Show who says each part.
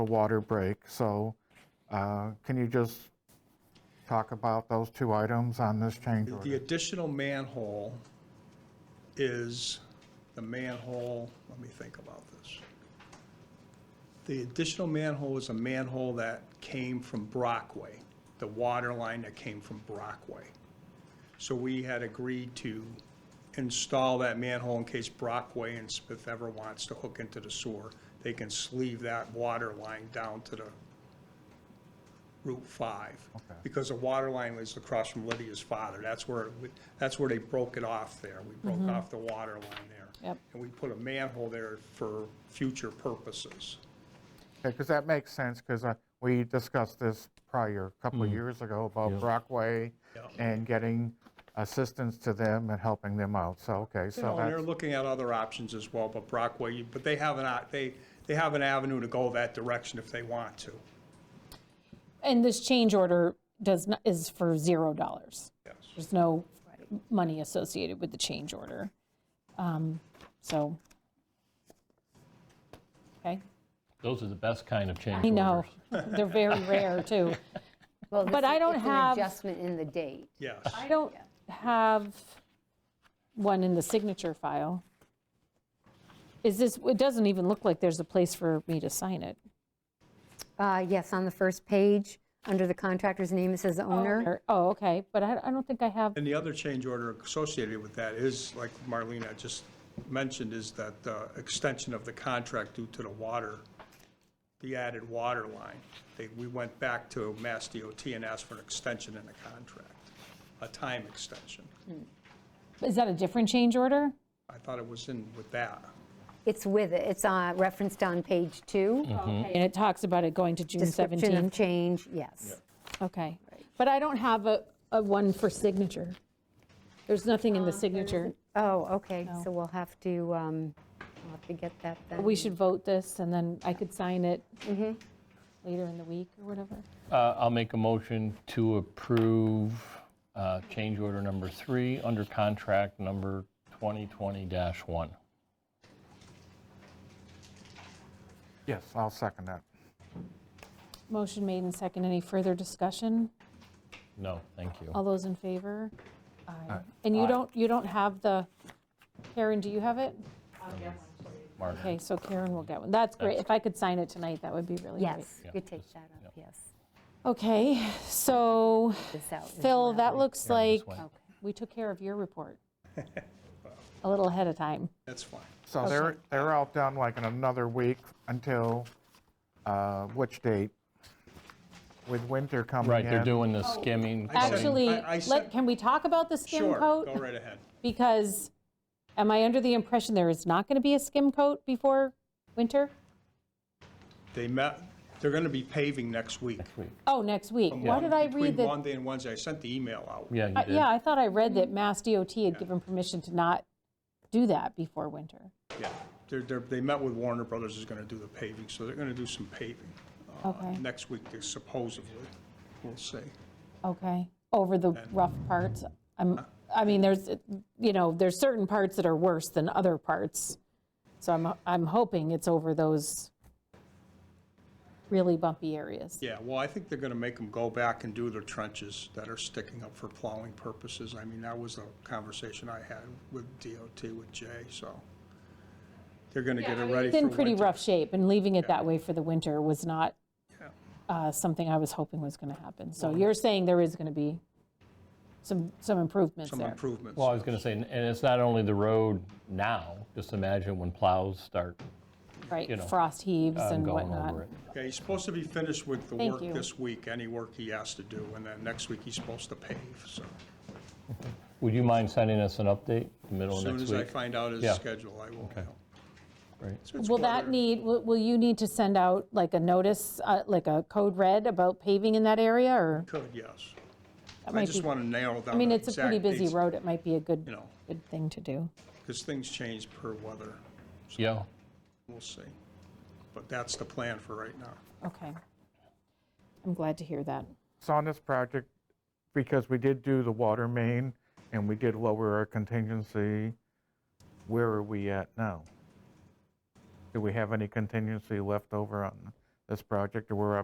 Speaker 1: a water break, so uh, can you just talk about those two items on this change
Speaker 2: The
Speaker 1: order?
Speaker 2: additional manhole is the manhole, let me think about this. The additional manhole is a manhole that came from Brockway, the water line that came from Brockway. So we had agreed to install that manhole in case Brockway and Smith ever wants to hook into the sewer. They can sleeve that water line down to the Route 5.
Speaker 1: Okay.
Speaker 2: Because the water line was across from Lydia's father. That's where, we- that's where they broke it off there. We broke off the water line there.
Speaker 3: Yep.
Speaker 2: And we put a manhole there for future purposes.
Speaker 1: Because that makes sense, because we discussed this prior, a
Speaker 4: Mm.
Speaker 1: couple of years ago, about Brockway
Speaker 2: Yeah.
Speaker 1: and getting assistance to them and helping them out, so, okay,
Speaker 2: You
Speaker 1: so
Speaker 2: know, and they're
Speaker 1: that's,
Speaker 2: looking at other options as well, but Brockway, but they have an, o- they, they have an avenue to go that direction if they want to.
Speaker 3: And this change order does not, is for zero dollars.
Speaker 2: Yes.
Speaker 3: There's no money associated with the change order. Um, So, okay,
Speaker 4: Those are the best kind of change
Speaker 3: I know,
Speaker 4: orders.
Speaker 3: they're very rare, too.
Speaker 5: Well, this
Speaker 3: But
Speaker 5: is-
Speaker 3: I don't
Speaker 5: it's
Speaker 3: have-
Speaker 5: an adjustment in the date.
Speaker 2: Yes.
Speaker 3: I don't have one in the signature file. Is this, it doesn't even look like there's a place for me to sign it.
Speaker 5: Uh, Yes, on the first page, under the contractor's name, it says owner.
Speaker 3: Or- Oh, okay, but I I don't think I have,
Speaker 2: And the other change order associated with that is, like Marlena just mentioned, is that the extension of the contract due to the water, the added water line. They, we went back to Mass DOT and asked for an extension in the contract, a time extension.
Speaker 3: is that a different change order?
Speaker 2: I thought it was in with that.
Speaker 5: It's with it, it's uh, referenced on page two.
Speaker 3: And it talks about it going to June 17th.
Speaker 5: Mm-hmm. Description of change, yes.
Speaker 3: Okay, but I don't have a, a one for signature. There's nothing in the signature.
Speaker 5: Oh, okay, so we'll have to, um, we'll have to get that then.
Speaker 3: We should vote this, and then I could sign it later in the week or whatever.
Speaker 4: Uh, I'll make a motion to approve uh, change order number three under contract number 2020-1.
Speaker 1: yes, I'll second that.
Speaker 3: Motion made and second. Any further discussion?
Speaker 4: No, thank you.
Speaker 3: All those in favor? Aye. And you don't, you don't have the, Karen, do you have it?
Speaker 4: Mark.
Speaker 3: Okay, so Karen will get one. That's great. If I could sign it tonight, that would be really great.
Speaker 5: Yes, you take
Speaker 4: just-
Speaker 5: that up, yes.
Speaker 3: Okay, so
Speaker 5: This out as
Speaker 3: Phil,
Speaker 5: well.
Speaker 3: that looks
Speaker 4: Karen,
Speaker 3: like
Speaker 4: this way.
Speaker 3: we took care of your report a little ahead of time.
Speaker 2: That's fine.
Speaker 1: So they're, they're all done like in another week until, uh, which date? With winter coming in.
Speaker 4: Right, they're doing the skimming. coating.
Speaker 3: Actually,
Speaker 2: I- I
Speaker 3: let,
Speaker 2: said-
Speaker 3: can we talk about the skim
Speaker 2: Sure,
Speaker 3: coat?
Speaker 2: go right ahead.
Speaker 3: Because am I under the impression there is not going to be a skim coat before winter?
Speaker 2: They met, they're going to be paving next week.
Speaker 3: Oh, next week. Why did I read
Speaker 2: Between
Speaker 3: that?
Speaker 2: Monday and Wednesday, I sent the email out.
Speaker 4: Yeah,
Speaker 3: I-
Speaker 4: you did.
Speaker 3: Uh, Yeah, I thought I read
Speaker 2: Mm-hmm.
Speaker 3: that Mass DOT had given permission to not do that before winter.
Speaker 2: Yeah, they're, they're, they met with Warner Brothers is gonna do the paving, so they're gonna do some paving. uh,
Speaker 3: Okay.
Speaker 2: Next week, they supposedly, we'll see.
Speaker 3: Okay, over the rough parts. I'm, I mean, there's, you know, there's certain parts that are worse than other parts. So I'm, I'm hoping it's over those really bumpy areas.
Speaker 2: Yeah, well, I think they're gonna make them go back and do their trenches that are sticking up for plowing purposes. I mean, that was the conversation I had with DOT, with Jay, so. They're gonna get it ready
Speaker 3: It's
Speaker 2: for
Speaker 3: in pretty
Speaker 2: winter.
Speaker 3: rough shape, and leaving it that way for the winter was not
Speaker 2: Yeah.
Speaker 3: uh, something I was hoping was going to happen. So you're saying there is going to be some, some improvements
Speaker 2: Some
Speaker 3: there?
Speaker 2: improvements.
Speaker 4: Well, I was going to say, and it's not only the road now, just imagine when plows start
Speaker 3: Right,
Speaker 4: know,
Speaker 3: frost heaves
Speaker 4: uh,
Speaker 3: and
Speaker 4: going
Speaker 3: whatnot.
Speaker 4: over it.
Speaker 2: Okay, he's supposed to be finished with the
Speaker 3: Thank
Speaker 2: work
Speaker 3: you.
Speaker 2: this week, any work he has to do, and then next week he's supposed to pave, so.
Speaker 4: Would you mind sending us an update the middle
Speaker 2: As
Speaker 4: of
Speaker 2: soon
Speaker 4: next
Speaker 2: as I
Speaker 4: week?
Speaker 2: find out his
Speaker 4: Yeah.
Speaker 2: schedule, I will know.
Speaker 4: Right.
Speaker 2: So it's
Speaker 3: Will that
Speaker 2: weather.
Speaker 3: need, will will you need to send out like a notice, uh, like a code red about paving in that area, or?
Speaker 2: Could, yes. I
Speaker 3: that might
Speaker 2: just
Speaker 3: be-
Speaker 2: want to nail down.
Speaker 3: I mean, it's a pretty busy
Speaker 2: road,
Speaker 3: road, it might be a good,
Speaker 2: You know.
Speaker 3: good thing to do.
Speaker 2: Because things change per weather.
Speaker 4: Yeah.
Speaker 2: We'll see. But that's the plan for right now.
Speaker 3: Okay. I'm glad to hear that.
Speaker 1: So on this project, because we did do the water main and we did lower our contingency, where are we at now? Do we have any contingency left over on this project, and we're up